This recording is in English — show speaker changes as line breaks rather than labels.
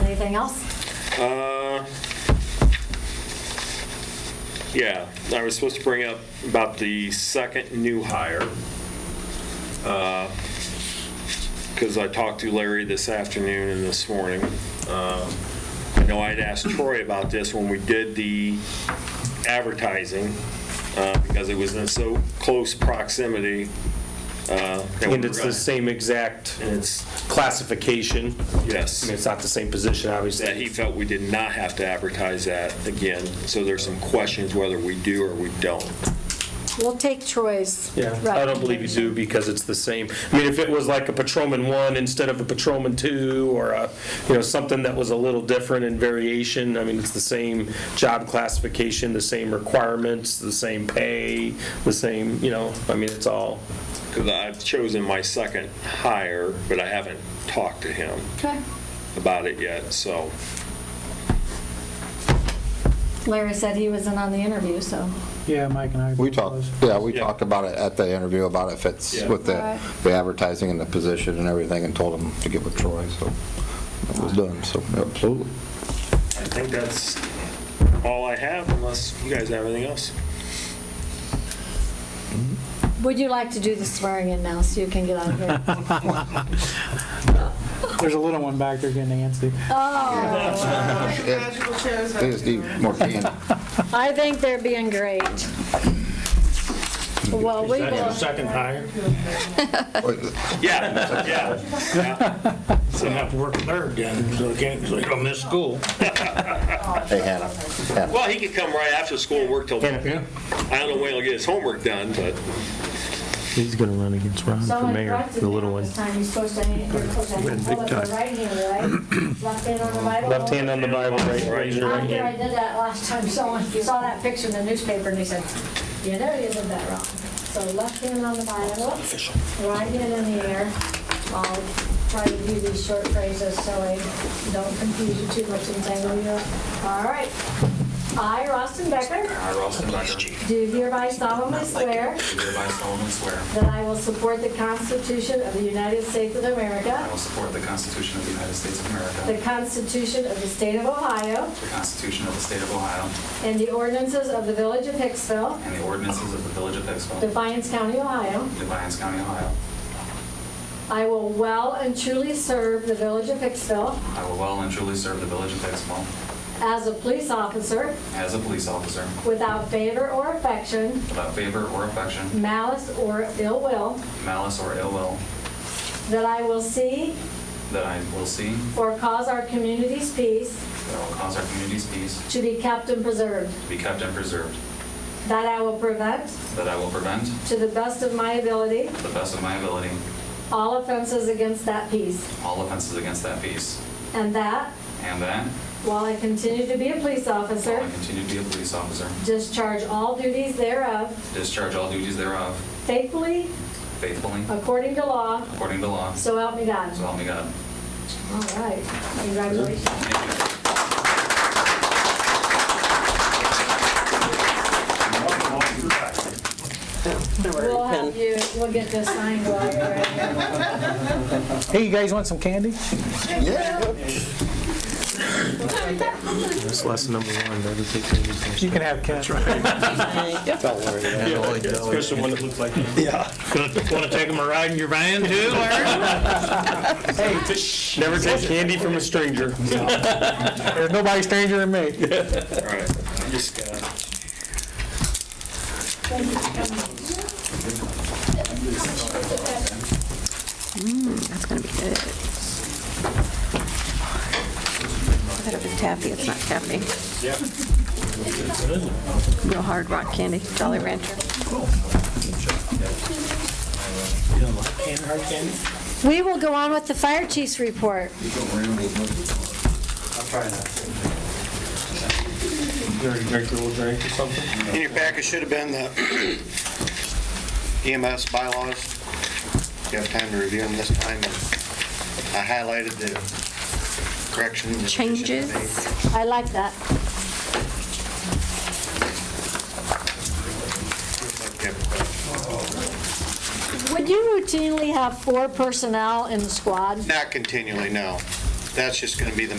anything else?
Uh, Yeah, I was supposed to bring up about the second new hire. Because I talked to Larry this afternoon and this morning. Uh, I know I'd asked Troy about this when we did the advertising, uh, because it was in so close proximity. uh, And
And it's the same exact
And it's,
classification.
yes.
I mean, it's not the same position,
that
obviously.
he felt we did not have to advertise that again. So there's some questions whether we do or we don't.
We'll take Troy's.
Yeah, I don't believe you do because it's the same. I mean, if it was like a patrolman one instead of a patrolman two or a, you know, something that was a little different in variation, I mean, it's the same job classification, the same requirements, the same pay, the same, you know, I mean, it's all,
Because I've chosen my second hire, but I haven't talked to him
Okay.
about it yet, so.
Larry said he wasn't on the interview, so.
Yeah, Mike and I.
We talked, yeah, we
Yeah.
talked about it at the interview, about if it's
Yeah.
with the,
Alright.
the advertising and the position and everything, and told him to get with Troy, so it was done, so, absolutely.
I think that's all I have unless you guys have anything else.
Would you like to do the swearing in now so you can get out of here?
There's a little one back there getting antsy.
Oh,
Magical shows.
They just need more candy.
I think they're being great. Well, we will,
Second hire,
Yeah, yeah.
so I have to work third then, so they can't, so they don't miss school.
Hey, Hannah, Hannah,
Well, he could come right after school and work till, I
Yeah.
don't know when he'll get his homework done, but
He's gonna run against Ron for mayor, the little one.
Time you're supposed to, you're supposed to
Big
hold up your
time.
right hand, right? Left hand on the Bible.
left hand on the Bible, right, raise your right
After I
hand.
did that last time, someone saw that picture in the newspaper and they said, you know you did that wrong. So left hand on the Bible, right hand in the air. I'll try to do these short phrases so I don't confuse you too much and tangle you up. All right. I, Rostin Becker,
I, Ralston Becker,
do hereby solemnly swear
hereby solemnly swear
that I will support the Constitution of the United States of America.
I will support the Constitution of the United States of
The
America,
Constitution of the State of Ohio
the Constitution of the State of Ohio,
and the ordinances of the Village of Hicksville,
and the ordinances of the Village of Hicksville,
Defiance County, Ohio.
Defiance County, Ohio.
I will well and truly serve the Village of Hicksville
I will well and truly serve the Village of Hicksville
as a police officer
as a police officer
without favor or affection,
without favor or affection,
malice or ill will,
malice or ill will,
that I will see
that I will see,
or cause our community's peace
that I will cause our community's peace
to be kept and preserved,
to be kept and preserved,
that I will prevent,
that I will prevent,
to the best of my ability,
to the best of my ability,
all offenses against that peace,
all offenses against that peace,
and that,
and that,
while I continue to be a police
while I
officer,
continue to be a police officer,
Discharge all duties thereof
discharge all duties thereof
faithfully,
faithfully,
according to law,
according to law,
so help me God.
so help me God.
All right, congratulations.
Thank you.
We'll have you, we'll get this signed while you're at it.
Hey, you guys want some candy?
That's lesson number one, never take anything.
You can have candy.
Especially one that looks like. Yeah. Want to take them a ride in your van too, Larry?
Never take candy from a stranger.
There's nobody stranger than me.
all right. I'm just gonna.
That's gonna be good. I thought it was taffy, it's not taffy. Real hard rock candy, Jolly Rancher.
we will go on with the fire chief's report.
In your packet should have been the EMS bylaws. You have time to review them this time. I highlighted the corrections. and additions made.
Changes.
I like that. Would you routinely have four personnel in the squad?
Not continually, no. That's just going to be the